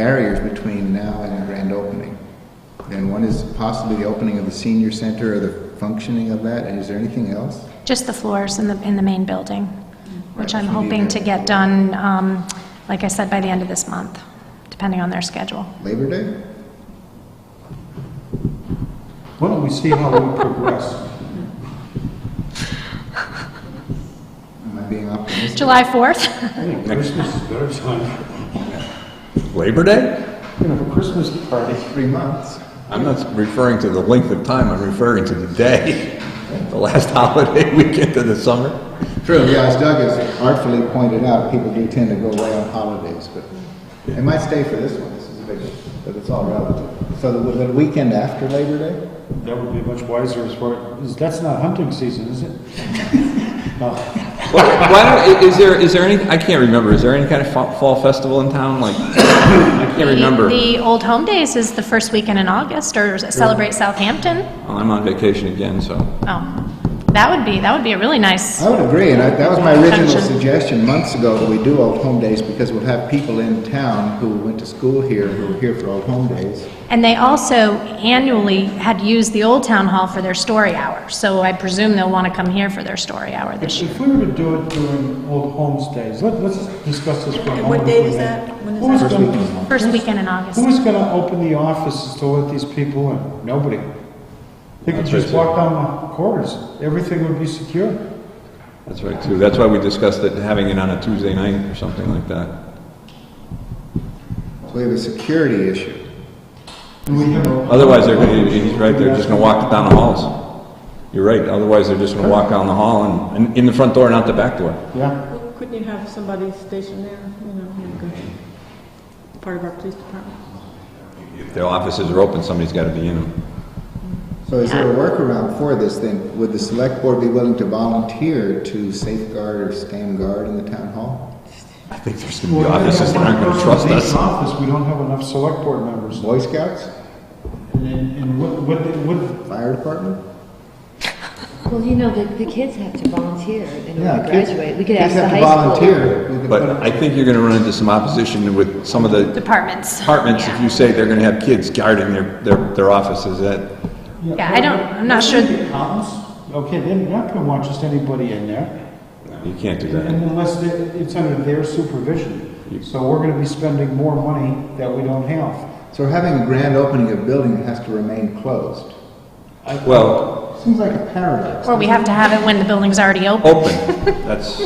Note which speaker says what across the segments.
Speaker 1: barriers between now and the grand opening. And one is possibly the opening of the senior center or the functioning of that, and is there anything else?
Speaker 2: Just the floors in the, in the main building, which I'm
Speaker 1: Right, so you
Speaker 2: hoping
Speaker 1: need
Speaker 2: to
Speaker 1: that.
Speaker 2: get done, um, like I said, by the end of this month, depending on their schedule.
Speaker 1: Labor Day?
Speaker 3: Why don't we see how we progress?
Speaker 1: Am I being optimistic?
Speaker 2: July 4th?
Speaker 3: I think Christmas is better time.
Speaker 4: Labor Day?
Speaker 3: You know, for Christmas party.
Speaker 1: Three months.
Speaker 4: I'm not referring to the length of time, I'm referring to the day, the last holiday weekend of the summer.
Speaker 1: True, yeah, as Doug has artfully pointed out, people do tend to go away on holidays, but they might stay for this one, this is a big one, but it's all relative. So the, the weekend after Labor Day?
Speaker 3: That would be much wiser as far, is- that's not hunting season, is it? No.
Speaker 4: Why why don't, i- is there, is there any, I can't remember, is there any kind of fa- fall festival in town, like, I can't remember.
Speaker 2: The the Old Home Days is the first weekend in August, or Celebrate Southampton.
Speaker 4: Well, Oh, I'm on vacation again, so.
Speaker 2: Oh, that would be, that would be a really nice,
Speaker 1: I would agree, and I, that was my original
Speaker 2: Pension.
Speaker 1: suggestion months ago that we do Old Home Days because we'll have people in town who went to school here who are here for Old Home Days.
Speaker 2: and they also annually had used the Old Town Hall for their story hour, so I presume they'll want to come here for their story hour this year.
Speaker 3: If we were to do it during Old Homes Days, let- let's discuss this for a moment.
Speaker 5: What date is
Speaker 3: Who
Speaker 5: that? When is
Speaker 3: was
Speaker 5: that?
Speaker 3: gonna-
Speaker 2: First weekend in August.
Speaker 3: Who is going to open the offices to let these people in? Nobody. They could
Speaker 4: That's right,
Speaker 3: just walk down the corridors. Everything would be secure.
Speaker 4: That's right, too. That's why we discussed it, having it on a Tuesday night or something like that.
Speaker 1: So we have a security issue.
Speaker 4: Otherwise, they're gonna, he's right, they're just gonna walk down the halls. You're right, otherwise they're just gonna walk down the hall and, and in the front door, not the back door.
Speaker 3: Yeah.
Speaker 5: Well, Couldn't you have somebody stationed there, you know, who could- part of our police department?
Speaker 4: If their offices are open, somebody's gotta be in them.
Speaker 1: So is there a workaround for this then? Would the select board be willing to volunteer to safeguard or stand guard in the town hall?
Speaker 4: I think there's gonna be offices that aren't gonna
Speaker 3: Well, if
Speaker 4: trust
Speaker 3: we have one person in each
Speaker 4: us.
Speaker 3: office, we don't have enough select board members.
Speaker 1: Boy Scouts?
Speaker 3: And then- And what, what, what,
Speaker 1: Fire department?
Speaker 6: Well, you know, the, the kids have to volunteer in order to
Speaker 1: kids-
Speaker 6: graduate. We could
Speaker 1: kids
Speaker 6: ask the
Speaker 1: have to
Speaker 6: high school.
Speaker 1: volunteer. We could put-
Speaker 4: But I think you're gonna run into some opposition with some of the
Speaker 2: Departments.
Speaker 4: departments if
Speaker 2: Yeah.
Speaker 4: you say they're gonna have kids guarding their, their, their offices. That,
Speaker 2: Yeah, I don't, I'm not sure.
Speaker 3: Accountants, okay, they're not gonna want just anybody in there,
Speaker 4: you can't do that.
Speaker 3: unless they- it's under their supervision. So we're gonna be spending more money that we don't have.
Speaker 1: So we're having a grand opening of a building that has to remain closed.
Speaker 4: Well,
Speaker 1: Seems like a paradox.
Speaker 2: Or we have to have it when the building's already open.
Speaker 4: open, that's,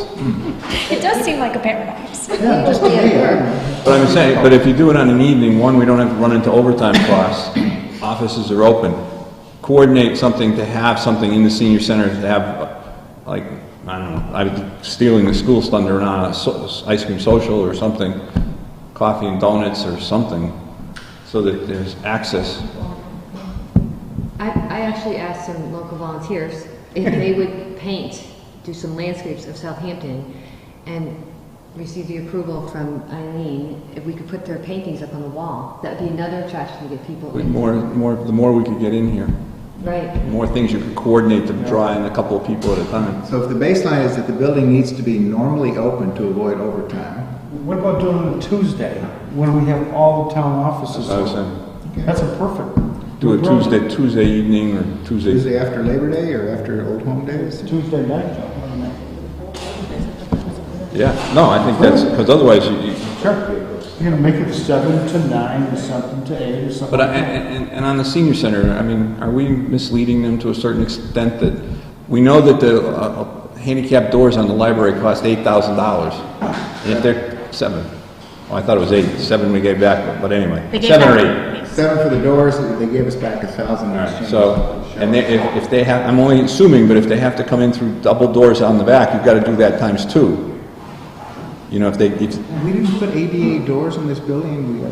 Speaker 2: It does seem like a paradox.
Speaker 1: Yeah, just to me. I don't know.
Speaker 4: But I'm saying, but if you do it on an evening, one, we don't have to run into overtime costs. Offices are open. Coordinate something to have something in the senior center to have, uh, like, I don't know, I'm stealing the school's thunder on a so- ice cream social or something, coffee and donuts or something, so that there's access.
Speaker 6: I, I actually asked some local volunteers if they would paint, do some landscapes of Southampton, and receive the approval from Eileen, if we could put their paintings up on the wall. That would be another attraction to get people
Speaker 4: The
Speaker 6: in.
Speaker 4: more, more, the more we could get in here, the
Speaker 6: Right.
Speaker 4: more things you could coordinate to draw in a couple of people at a time.
Speaker 1: So if the baseline is that the building needs to be normally open to avoid overtime,
Speaker 3: What about doing it Tuesday, when we have all the town offices?
Speaker 4: I was saying,
Speaker 3: That's a perfect.
Speaker 4: do it Tuesday, Tuesday evening or Tuesday.
Speaker 1: Tuesday after Labor Day or after Old Home Days?
Speaker 3: Tuesday night.
Speaker 4: Yeah, no, I think that's, because otherwise you, you-
Speaker 3: Sure. You're gonna make it seven to nine, or something to eight, or something.
Speaker 4: But, I-
Speaker 3: like that.
Speaker 4: and, and- and on the senior center, I mean, are we misleading them to a certain extent that, we know that the uh, uh, handicap doors on the library cost eight thousand dollars? And if they're, seven, oh, I thought it was eight, seven we gave back, but anyway,
Speaker 2: They gave
Speaker 4: seven or
Speaker 2: back-
Speaker 4: eight.
Speaker 1: Seven for the doors, they gave us back a thousand.
Speaker 4: So, and they, if, if they have, I'm only assuming, but if they have to come in through double doors on the back, you've gotta do that times two. You know, if they, if,
Speaker 1: We didn't put ADA doors in this building, we,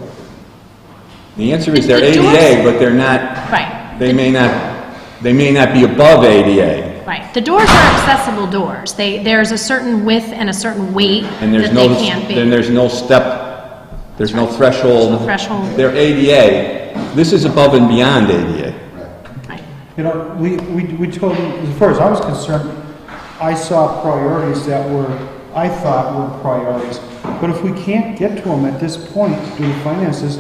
Speaker 4: the answer is
Speaker 2: The-
Speaker 4: they're
Speaker 2: the
Speaker 4: ADA,
Speaker 2: doors-
Speaker 4: but they're not,
Speaker 2: Right,
Speaker 4: they may not, they may not be above ADA.
Speaker 2: right. The doors are accessible doors. They, there's a certain width and a certain weight
Speaker 4: And there's
Speaker 2: that
Speaker 4: no,
Speaker 2: they can't be.
Speaker 4: then there's no step, there's no
Speaker 2: There's
Speaker 4: threshold.
Speaker 2: no threshold.
Speaker 4: They're ADA. This is above and beyond ADA.
Speaker 2: Right.
Speaker 3: You know, we, we, we told, as far as I was concerned, I saw priorities that were, I thought were priorities. But if we can't get to them at this point due to finances,